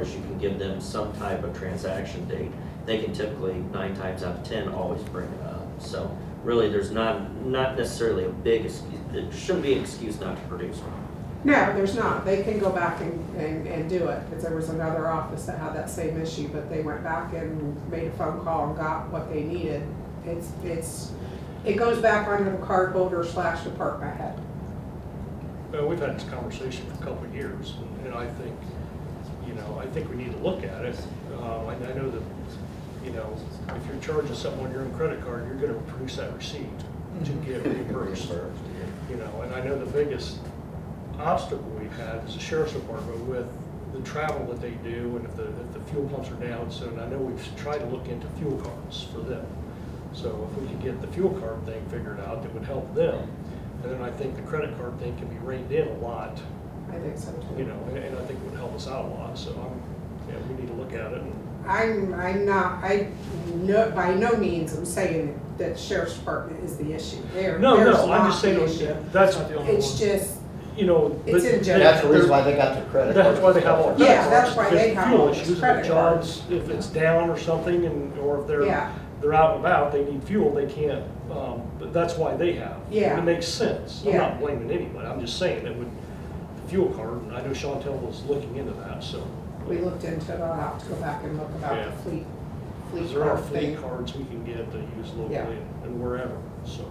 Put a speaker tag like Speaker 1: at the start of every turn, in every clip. Speaker 1: as you can give them some type of transaction date. They can typically, nine times out of ten, always bring it up. So really, there's not, not necessarily a big, excuse there shouldn't be an excuse not to produce one.
Speaker 2: No, there's not. They can go back and, and, and do it, because there was another office that had that same issue, but they went back and made a phone call and got what they needed. It's, it's, it goes back onto the card holder slash department head.
Speaker 3: Well, we've had this conversation for a couple of years, and I think, you know, I think we need to look at it. Uh, I I know that, you know, if you're charging someone your own credit card, you're gonna produce that receipt to get reimbursed. You know, and I know the biggest obstacle we've had is the sheriff's department with the travel that they do, and if the, if the fuel pumps are down, so, and I know we've tried to look into fuel cards for them. So if we could get the fuel card thing figured out, that would help them. And then I think the credit card thing can be reined in a lot,
Speaker 2: I think so too.
Speaker 3: you know, and, and I think it would help us out a lot, so I'm, yeah, we need to look at it. and-
Speaker 2: I'm, I'm not, I, no, by no means I'm saying that sheriff's department is the issue. There,
Speaker 3: No,
Speaker 2: there's
Speaker 3: no, I'm
Speaker 2: not
Speaker 3: just
Speaker 2: the
Speaker 3: saying,
Speaker 2: issue.
Speaker 3: that's not the only
Speaker 2: It's
Speaker 3: one,
Speaker 2: just,
Speaker 3: you know.
Speaker 2: it's
Speaker 3: but-
Speaker 2: in general.
Speaker 4: That's the reason why they got their credit.
Speaker 3: That's why
Speaker 4: card.
Speaker 3: they have all.
Speaker 2: Yeah, that's why they have all
Speaker 3: Fuel
Speaker 2: those
Speaker 3: issues, if
Speaker 2: credit
Speaker 3: jobs, if it's down or something, and, or if
Speaker 2: Yeah.
Speaker 3: they're, they're out and about, they need fuel, they can't, um, but that's why they have.
Speaker 2: Yeah.
Speaker 3: It makes sense, I'm
Speaker 2: Yeah.
Speaker 3: not blaming anybody, I'm just saying it would, the fuel card, and I know Chantel was looking into that, so.
Speaker 2: we looked into it, I'll have to go back and look about
Speaker 3: Yeah.
Speaker 2: the fleet, fleet
Speaker 3: Because there are
Speaker 2: card
Speaker 3: fleet
Speaker 2: thing.
Speaker 3: cards we can get to use locally
Speaker 2: Yeah.
Speaker 3: and- and wherever, so.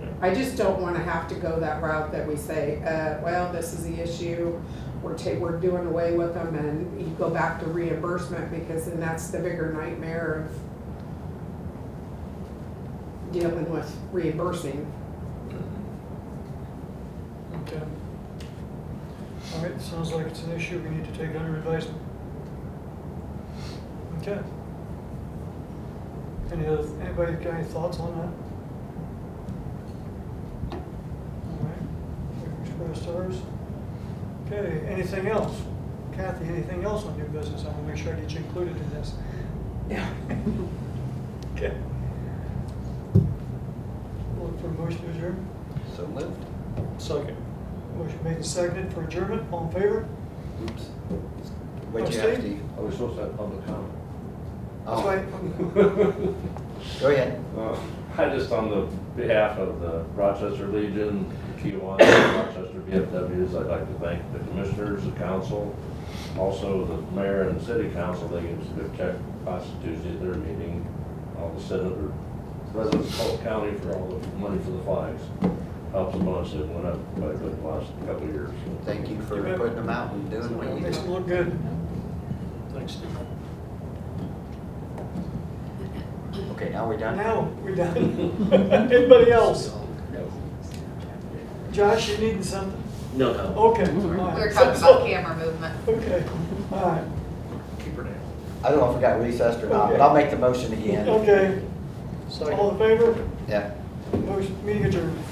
Speaker 3: yeah.
Speaker 2: I just don't wanna have to go that route that we say, uh, well, this is the issue, we're ta, we're doing away with them, and you go back to reimbursement, because then that's the bigger nightmare of dealing with reimbursing.
Speaker 5: Okay. All right, sounds like it's an issue we need to take under advisement. Okay. Any other, anybody got any thoughts on that? All right, we've expressed ours. Okay, anything else? Kathy, anything else on new business? I want to make sure I get you included in this. Okay. Look for a motion to adjourn.
Speaker 4: So moved.
Speaker 3: Second.
Speaker 5: Motion made and seconded for adjournment. All in favor?
Speaker 4: Oops. Wait, you
Speaker 5: Upstate?
Speaker 4: have Steve. I was supposed to have public comment.
Speaker 5: That's
Speaker 4: Oh,
Speaker 5: right.
Speaker 4: Go ahead.
Speaker 6: Uh, I just, on the behalf of the Rochester Legion, Kiwanis, and Rochester VFWs, I'd like to thank the commissioners, the council, also the mayor and the city council, they gave us a good check last Tuesday at their meeting, all the senator, residents of Polk County for all the money for the flags. Helps a bunch, it went up by a good last couple of years.
Speaker 4: Thank you for putting them out and doing what you
Speaker 5: Makes it
Speaker 4: do.
Speaker 5: look good.
Speaker 3: Thanks, Steve.
Speaker 4: Okay, now we're done?
Speaker 5: Now, we're done. Anybody else? Josh, you needing something?
Speaker 1: No, no.
Speaker 5: Okay.
Speaker 7: We were talking about camera movement.
Speaker 5: Okay, all right,
Speaker 3: Keep her down.
Speaker 4: I don't know if we got recessed or not, but I'll make the motion again.
Speaker 5: okay.
Speaker 3: Second.
Speaker 5: All in favor?
Speaker 4: Yeah.
Speaker 5: Motion, meeting adjourned.